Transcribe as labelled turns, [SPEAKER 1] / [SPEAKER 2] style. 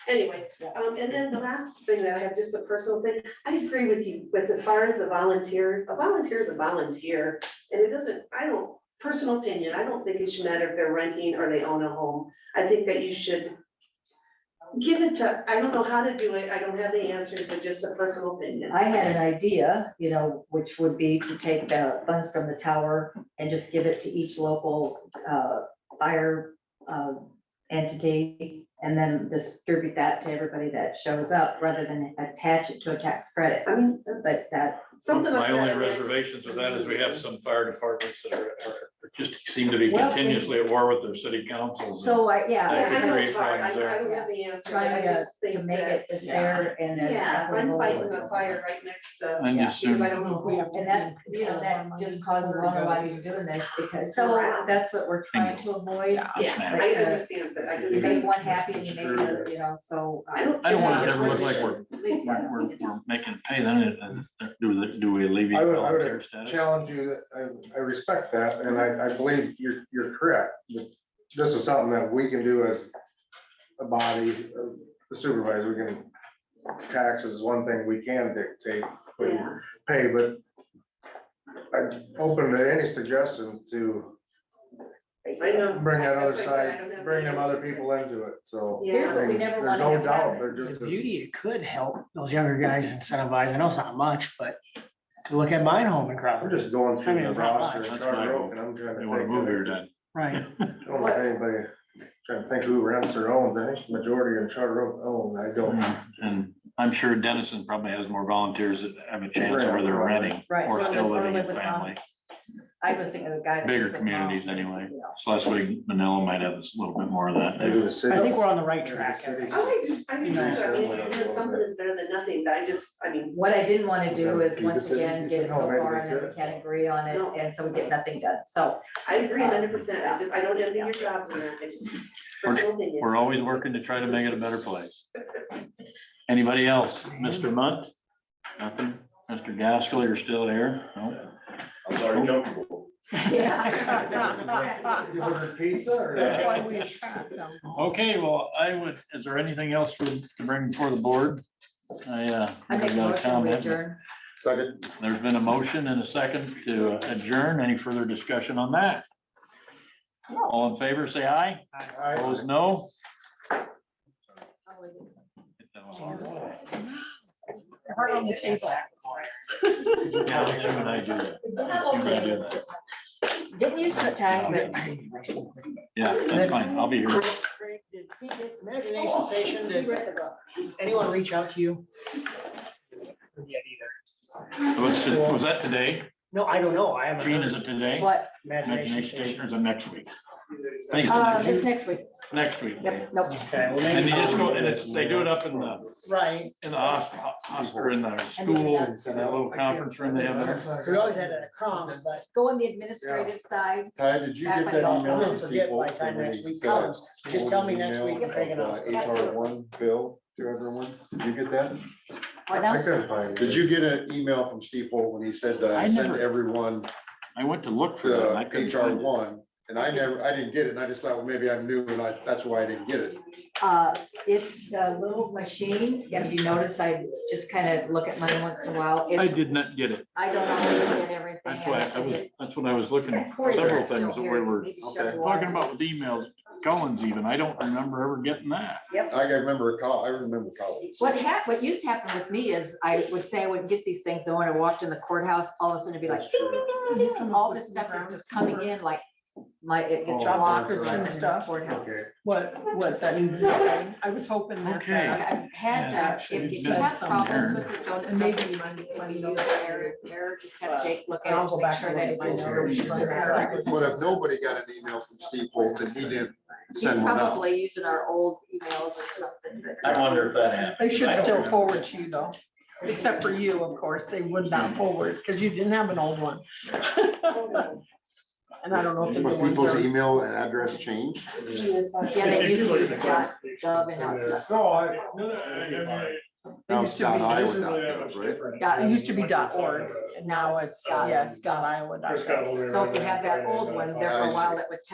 [SPEAKER 1] Anyway,
[SPEAKER 2] Yeah.
[SPEAKER 1] um, and then the last thing that I have, just a personal thing, I agree with you, with as far as the volunteers, a volunteer is a volunteer. And it doesn't, I don't, personal opinion, I don't think it should matter if they're renting or they own a home. I think that you should give it to, I don't know how to do it, I don't have the answers, but just a personal opinion.
[SPEAKER 2] I had an idea, you know, which would be to take the funds from the tower and just give it to each local uh, fire um, entity and then distribute that to everybody that shows up rather than attach it to a tax credit.
[SPEAKER 1] I mean, that's
[SPEAKER 2] But that,
[SPEAKER 1] something like
[SPEAKER 3] My only
[SPEAKER 1] that. I mean, I just-
[SPEAKER 3] reservations with that is we have some fire departments that are, are just seem to be
[SPEAKER 2] Well,
[SPEAKER 3] continuously at
[SPEAKER 2] it's-
[SPEAKER 3] war with their city councils. and
[SPEAKER 2] so I,
[SPEAKER 1] I
[SPEAKER 2] yeah,
[SPEAKER 1] I know it's
[SPEAKER 3] Create
[SPEAKER 1] hard, I,
[SPEAKER 3] problems
[SPEAKER 1] I don't
[SPEAKER 2] there.
[SPEAKER 1] have the answer, but I
[SPEAKER 2] trying to,
[SPEAKER 1] just think
[SPEAKER 2] to make it
[SPEAKER 1] that-
[SPEAKER 2] as fair and as
[SPEAKER 1] Yeah, I'm
[SPEAKER 2] equitable.
[SPEAKER 1] fighting a fire right next to,
[SPEAKER 4] I'm
[SPEAKER 2] Yeah.
[SPEAKER 4] just
[SPEAKER 1] because I
[SPEAKER 4] assuming,
[SPEAKER 1] don't know who.
[SPEAKER 2] And that's, you know, that just causes a lot of why you're doing this because, so that's what we're trying to avoid.
[SPEAKER 1] Yeah,
[SPEAKER 4] Snap.
[SPEAKER 1] I understand, but I just.
[SPEAKER 2] You make
[SPEAKER 1] think-
[SPEAKER 2] one happy and you make another, you know, so.
[SPEAKER 1] I don't.
[SPEAKER 4] I don't want
[SPEAKER 1] think
[SPEAKER 4] it to ever look
[SPEAKER 1] it's
[SPEAKER 4] like we're,
[SPEAKER 2] At least
[SPEAKER 4] we're,
[SPEAKER 2] one.
[SPEAKER 4] we're- we're making pay then, and- and do, the- do we alleviate
[SPEAKER 5] I would- I would-
[SPEAKER 4] volunteer status?
[SPEAKER 5] challenge you, that I, I respect that, and I, I believe you're, you're correct. This is something that we can do as a body, uh, the supervisor, we can, taxes is one thing we can dictate, what you
[SPEAKER 1] Yeah.
[SPEAKER 5] pay, but I'm open to any suggestions to
[SPEAKER 1] I know.
[SPEAKER 5] bring that other
[SPEAKER 1] That's why I said I don't
[SPEAKER 5] side,
[SPEAKER 1] have
[SPEAKER 5] bring them other
[SPEAKER 1] answers.
[SPEAKER 5] people into it, so.
[SPEAKER 2] Here's what we never
[SPEAKER 5] There's
[SPEAKER 2] wanted to
[SPEAKER 5] no doubt,
[SPEAKER 2] happen.
[SPEAKER 5] they're
[SPEAKER 6] The
[SPEAKER 5] just. as-
[SPEAKER 6] beauty, it could help those younger guys incentivize, I know it's not much, but to look at mine home in
[SPEAKER 5] I'm
[SPEAKER 6] Crawford,
[SPEAKER 5] just going
[SPEAKER 6] I
[SPEAKER 5] through
[SPEAKER 6] mean,
[SPEAKER 5] the
[SPEAKER 6] it's not
[SPEAKER 5] roster,
[SPEAKER 6] much.
[SPEAKER 5] and Charter Oak, and I'm trying to.
[SPEAKER 4] They wanna
[SPEAKER 5] think
[SPEAKER 4] move
[SPEAKER 5] of-
[SPEAKER 4] here then.
[SPEAKER 6] right?
[SPEAKER 5] I don't know if anybody, trying to think who rents their own, I think majority of Charter Oak own, I
[SPEAKER 4] Hmm.
[SPEAKER 5] don't.
[SPEAKER 4] Mm, And I'm sure Dennison probably has more volunteers that have a chance where they're renting
[SPEAKER 2] Right. uh,
[SPEAKER 4] or still living in
[SPEAKER 2] Right.
[SPEAKER 4] family.
[SPEAKER 2] I was thinking of the guy. that
[SPEAKER 4] Bigger
[SPEAKER 2] lives with
[SPEAKER 4] communities
[SPEAKER 2] moms,
[SPEAKER 4] anyway.
[SPEAKER 2] you know.
[SPEAKER 4] So last week, Manila might have a little bit more of that.
[SPEAKER 5] Maybe the city.
[SPEAKER 6] I think we're on the right
[SPEAKER 5] Maybe the
[SPEAKER 6] track.
[SPEAKER 5] city.
[SPEAKER 1] I like, to- I think,
[SPEAKER 6] You know,
[SPEAKER 1] too, I mean,
[SPEAKER 5] so-
[SPEAKER 1] when something is better than nothing, but I just, I mean,
[SPEAKER 2] What I didn't want to do
[SPEAKER 5] Okay,
[SPEAKER 2] is
[SPEAKER 5] do the
[SPEAKER 2] once again,
[SPEAKER 5] cities,
[SPEAKER 2] get it so
[SPEAKER 5] no, maybe
[SPEAKER 2] far
[SPEAKER 5] they
[SPEAKER 2] and then we
[SPEAKER 5] could.
[SPEAKER 2] can't agree on it,
[SPEAKER 1] No.
[SPEAKER 2] and so we get nothing done, so.
[SPEAKER 1] I agree hundred percent, I just, I don't envy your job, and I just, personal opinion.
[SPEAKER 4] We're always working to try to make it a better place. Anybody else? Mr. Munt? Nothing? Mr. Gaskell, you're still here? No?
[SPEAKER 7] I'm sorry, comfortable.
[SPEAKER 2] Yeah.
[SPEAKER 5] You ordered pizza or?
[SPEAKER 4] That's why
[SPEAKER 6] we attract them.
[SPEAKER 4] Okay, well, I would, is there anything else for, to bring before the board? I, uh,
[SPEAKER 2] I make a
[SPEAKER 4] got a
[SPEAKER 2] motion to
[SPEAKER 4] comment.
[SPEAKER 2] adjourn.
[SPEAKER 5] Second.
[SPEAKER 4] There's been a motion and a second to adjourn. Any further discussion on that? All in favor, say aye. Opposed, no.
[SPEAKER 2] I'll leave it.
[SPEAKER 4] That was hard.
[SPEAKER 2] Heart on the table.
[SPEAKER 4] Yeah, that's when I do that. That's when I do that.
[SPEAKER 2] Didn't use the time, but.
[SPEAKER 4] Yeah, that's fine. I'll be here.
[SPEAKER 6] Imagination station,
[SPEAKER 2] He
[SPEAKER 6] did
[SPEAKER 2] read the book.
[SPEAKER 6] anyone reach out to you? Yet either.
[SPEAKER 4] Was was that today?
[SPEAKER 6] No, I don't know, I haven't.
[SPEAKER 4] Gene, is
[SPEAKER 6] heard.
[SPEAKER 4] it today?
[SPEAKER 2] What,
[SPEAKER 6] Imagination
[SPEAKER 4] Imagination
[SPEAKER 6] station.
[SPEAKER 4] Station or is it next week? I think it's
[SPEAKER 2] uh,
[SPEAKER 4] the
[SPEAKER 2] this next
[SPEAKER 4] next,
[SPEAKER 2] week,
[SPEAKER 4] next week.
[SPEAKER 2] yep, nope,
[SPEAKER 6] Okay, well,
[SPEAKER 4] And they
[SPEAKER 6] maybe,
[SPEAKER 4] just go, and it's, they do it up in the,
[SPEAKER 6] right,
[SPEAKER 4] in the hospital, or in the school, that little conference room they have there.
[SPEAKER 6] so we always had that at Crom's, but
[SPEAKER 2] go on the administrative side,
[SPEAKER 5] Ty, did you
[SPEAKER 2] Back
[SPEAKER 5] get
[SPEAKER 2] when
[SPEAKER 5] that
[SPEAKER 2] y'all-
[SPEAKER 5] email?
[SPEAKER 6] I'm gonna
[SPEAKER 5] to
[SPEAKER 6] forget
[SPEAKER 5] people
[SPEAKER 6] by the time
[SPEAKER 5] when
[SPEAKER 6] next
[SPEAKER 5] we
[SPEAKER 6] week
[SPEAKER 5] got
[SPEAKER 6] comes, just tell me next week,
[SPEAKER 5] email
[SPEAKER 6] I'm taking
[SPEAKER 5] of
[SPEAKER 6] off.
[SPEAKER 5] the HR one bill, two hundred and one, did you get that?
[SPEAKER 2] what
[SPEAKER 5] I
[SPEAKER 2] now?
[SPEAKER 5] couldn't find it.
[SPEAKER 8] Did you get an email from Steve Holt when he said that
[SPEAKER 4] I
[SPEAKER 8] I sent
[SPEAKER 4] never-
[SPEAKER 8] everyone
[SPEAKER 4] I went to look for that. and I
[SPEAKER 8] the
[SPEAKER 4] couldn't
[SPEAKER 8] HR
[SPEAKER 4] find it.
[SPEAKER 8] one? And I never, I didn't get it, and I just thought, well, maybe I'm new, and I, that's why I didn't get it.
[SPEAKER 2] Uh, it's the little machine, and you notice I just kind of look at mine once in a while,
[SPEAKER 4] I
[SPEAKER 2] It-
[SPEAKER 4] did not get it.
[SPEAKER 2] I don't always get everything.
[SPEAKER 4] That's why I was, that's what I was looking at.
[SPEAKER 2] Corey's
[SPEAKER 4] Several
[SPEAKER 2] still
[SPEAKER 4] things that we
[SPEAKER 2] here,
[SPEAKER 4] were
[SPEAKER 2] maybe
[SPEAKER 8] okay,
[SPEAKER 2] Cheryl will-
[SPEAKER 4] talking about with emails, Collins even. I don't remember ever getting that.
[SPEAKER 8] I remember a call, Oh, I remember calling.
[SPEAKER 2] What hap, what used to happen with me is I would say I would get these things, and when I walked in the courthouse, all of a sudden it'd be like, ding, ding, ding, ding, ding, and all this stuff is just coming in like, my, it gets
[SPEAKER 4] Oh,
[SPEAKER 2] blocked.
[SPEAKER 8] and
[SPEAKER 2] in the
[SPEAKER 9] stuff.
[SPEAKER 2] courthouse.
[SPEAKER 5] Okay.
[SPEAKER 9] What, what that means to say. I was hoping that.
[SPEAKER 4] Okay.
[SPEAKER 9] that-
[SPEAKER 2] I've had, uh, if if you have problems with it, don't,
[SPEAKER 9] And maybe
[SPEAKER 2] something
[SPEAKER 9] when-
[SPEAKER 2] it can
[SPEAKER 9] when
[SPEAKER 2] be
[SPEAKER 9] you-
[SPEAKER 2] used, Eric, Eric, just have Jake look
[SPEAKER 9] I'll
[SPEAKER 2] at it, to
[SPEAKER 9] go
[SPEAKER 2] make
[SPEAKER 9] back
[SPEAKER 2] sure
[SPEAKER 9] and
[SPEAKER 2] that it
[SPEAKER 9] look at
[SPEAKER 2] is.
[SPEAKER 9] my
[SPEAKER 2] noticed.
[SPEAKER 8] What if nobody got an email from Steve Holt, and he didn't
[SPEAKER 2] He's
[SPEAKER 8] send one out?
[SPEAKER 2] probably using our old emails or something, but.
[SPEAKER 7] I wonder if that happened.
[SPEAKER 9] They
[SPEAKER 7] I
[SPEAKER 9] should
[SPEAKER 7] don't
[SPEAKER 9] still
[SPEAKER 7] remember.
[SPEAKER 9] forward to you though, except for you, of course, they would not forward, because you didn't have an old one.
[SPEAKER 1] Oh,
[SPEAKER 9] And I don't know if the new
[SPEAKER 8] Were
[SPEAKER 9] ones
[SPEAKER 8] people's
[SPEAKER 9] are.
[SPEAKER 8] email and address changed?
[SPEAKER 2] Yeah,
[SPEAKER 1] Yeah,
[SPEAKER 2] they used to be dot gov and now it's dot-
[SPEAKER 5] No, I.
[SPEAKER 9] They
[SPEAKER 8] Now
[SPEAKER 9] used to
[SPEAKER 8] it's
[SPEAKER 9] be,
[SPEAKER 8] dot
[SPEAKER 9] dot-
[SPEAKER 8] Iowa dot gov, right?
[SPEAKER 9] it
[SPEAKER 2] dot.
[SPEAKER 9] used to be dot org, and now it's, yes, dot Iowa. dot gov.
[SPEAKER 2] So if you have that old one, there for a while, it would